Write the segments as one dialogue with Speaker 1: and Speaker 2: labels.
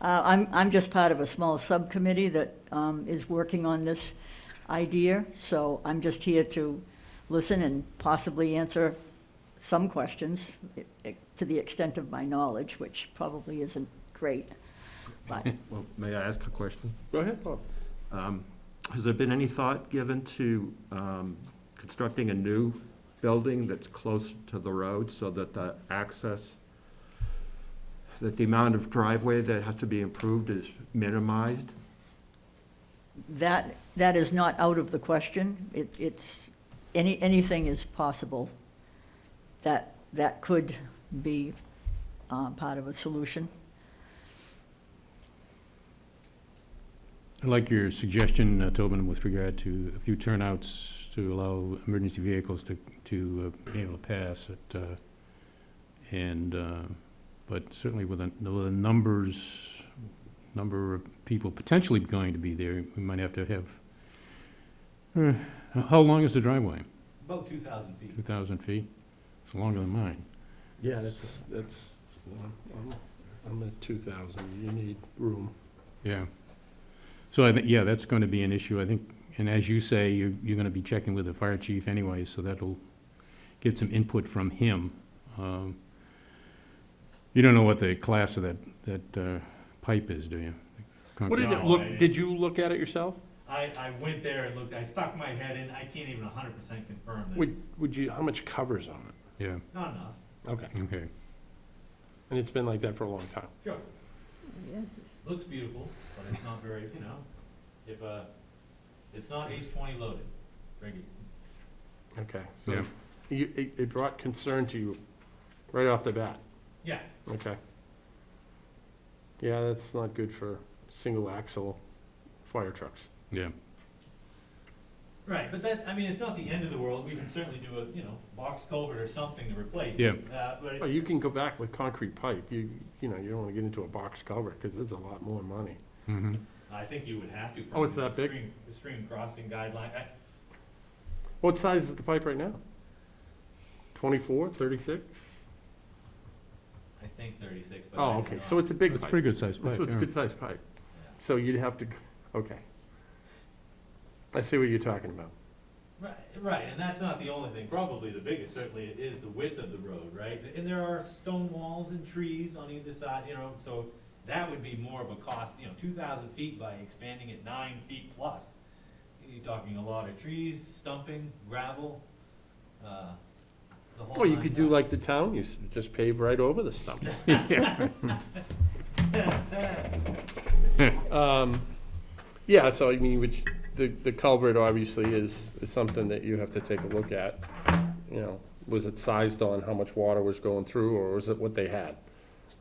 Speaker 1: Uh, I'm, I'm just part of a small subcommittee that um, is working on this idea, so I'm just here to listen and possibly answer some questions i- i- to the extent of my knowledge, which probably isn't great, but
Speaker 2: Well, may I ask a question?
Speaker 3: Go ahead, Bob.
Speaker 2: Um, Has there been any thought given to um, constructing a new building that's close to the road so that the access, that the amount of driveway that has to be improved is minimized?
Speaker 1: that, that is not out of the question. It, it's, any, anything is possible that, that could be uh, part of a solution.
Speaker 4: I like your suggestion, uh, Tobin, with regard to a few turnouts to allow emergency vehicles to, to uh, be able to pass it. uh, And, uh, but certainly with the, with the numbers, number of people potentially going to be there, we might have to have, Uh, how long is the driveway?
Speaker 5: About two thousand feet.
Speaker 4: 2,000 feet? It's longer than mine.
Speaker 3: Yeah, that's, that's, I'm- I'm- I'm at 2,000, you need room.
Speaker 4: Yeah. So I think, yeah, that's going to be an issue, I think, and as you say, you're, you're going to be checking with the fire chief anyway, so that'll get some input from him. Um, You don't know what the class of that, that uh, pipe is, do you?
Speaker 3: What did it
Speaker 4: Concrete.
Speaker 3: look, did you look at it yourself?
Speaker 5: I, I went there and looked, I stuck my head in, I can't even hundred percent confirm that
Speaker 3: Would,
Speaker 5: it's
Speaker 3: would you, how much covers on
Speaker 4: Yeah,
Speaker 5: not enough.
Speaker 3: it? Okay,
Speaker 4: okay.
Speaker 3: and it's been like that for a long time.
Speaker 5: Sure, looks beautiful, but it's not very, you know, if, uh, it's not ace twenty loaded, Ricky.
Speaker 3: Okay,
Speaker 4: Yeah.
Speaker 3: so you- it it brought concern to you right off the bat,
Speaker 5: Yeah,
Speaker 3: okay? Yeah, that's not good for single axle fire trucks.
Speaker 4: Yeah,
Speaker 5: right, but that, I mean, it's not the end of the world, we can certainly do a, you know, box culvert or something to replace it. Uh, but
Speaker 3: Oh,
Speaker 5: it-
Speaker 3: you can go back with concrete pipe, you, you know, you don't wanna get into a box cover, cause it's a lot more money.
Speaker 4: mhm.
Speaker 5: I think you would have to.
Speaker 3: Oh, it's
Speaker 5: from
Speaker 3: that big?
Speaker 5: the stream- The stream crossing guideline, I,
Speaker 3: What size is the pipe right now? 24, 36?
Speaker 5: I think thirty-six, but.
Speaker 3: Oh, okay, so it's a big
Speaker 4: Uh, It's a
Speaker 3: pipe.
Speaker 4: pretty good sized pipe,
Speaker 3: So it's a
Speaker 4: yeah.
Speaker 3: good-sized pipe. So you'd have to, g- okay. I see what you're talking about.
Speaker 5: Right, right, and that's not the only thing, probably the biggest certainly is the width of the road, right? And there are stone walls and trees on either side, you know, so that would be more of a cost, you know, two thousand feet by expanding it nine feet plus. You're talking a lot of trees, stumping, gravel, uh, the whole.
Speaker 3: Well, you
Speaker 5: nine
Speaker 3: could do
Speaker 5: yards.
Speaker 3: like the town, you s- just pave right over the stump. Um, Yeah, so I mean, which, the, the culvert obviously is, is something that you have to take a look at. You know, was it sized on how much water was going through, or was it what they had?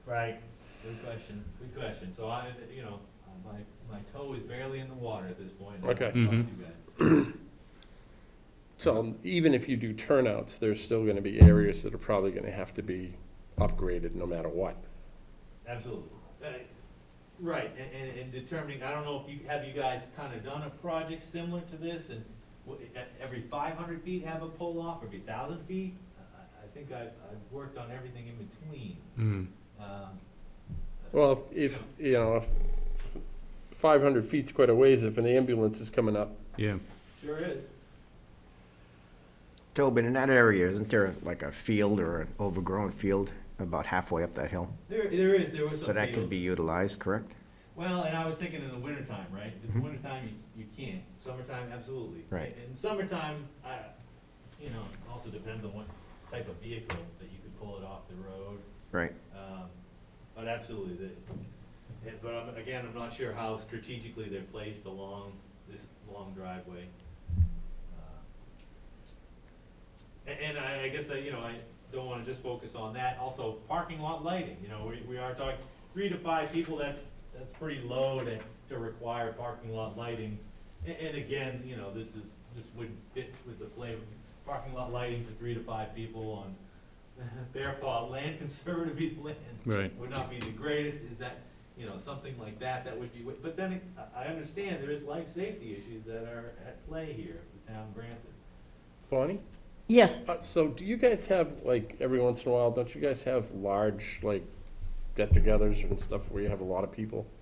Speaker 5: Right, good question, good question, so I, you know, my, my toe is barely in the water at this point.
Speaker 3: Okay.
Speaker 5: Not too
Speaker 4: Mhm.
Speaker 5: bad.
Speaker 3: So um, even if you do turnouts, there's still gonna be areas that are probably gonna have to be upgraded no matter what.
Speaker 5: Absolutely. Uh, Right, and, and, and determining, I don't know if you, have you guys kind of done a project similar to this and w- e- every five hundred feet have a pull off, every thousand feet? I, I- I think I've, I've worked on everything in between.
Speaker 4: Mm.
Speaker 5: Um,
Speaker 3: Well, if, if, you know, if five hundred feet's quite a ways if an ambulance is coming up.
Speaker 4: Yeah,
Speaker 5: Sure is.
Speaker 6: Tobin, in that area, isn't there like a field or an overgrown field about halfway up that hill?
Speaker 5: There, there is, there was some
Speaker 6: So that could
Speaker 5: fields.
Speaker 6: be utilized, correct?
Speaker 5: Well, and I was thinking in the wintertime, right? If it's wintertime, you, you can't. Summertime, absolutely.
Speaker 6: Mm-hmm. Right.
Speaker 5: In summertime, I, you know, also depends on what type of vehicle that you could pull it off the road.
Speaker 6: Right.
Speaker 5: Um, But absolutely, the- eh, but I'm- again, I'm not sure how strategically they're placed along this long driveway. Uh, a- And I, I guess, I, you know, I don't wanna just focus on that, also parking lot lighting, you know, we, we are talking three to five people, that's, that's pretty low to, to require parking lot lighting. And, and again, you know, this is, this would fit with the flavor, parking lot lighting for three to five people on Bear Paw land, conservative land.
Speaker 4: right.
Speaker 5: Would not be the greatest, is that, you know, something like that, that would be, wa- but then it- I, I understand there is life safety issues that are at play here, if the town grants it.
Speaker 3: Bonnie?
Speaker 1: Yes,
Speaker 3: Uh, so do you guys have, like, every once in a while, don't you guys have large, like, get-togethers and stuff where you have a lot of people.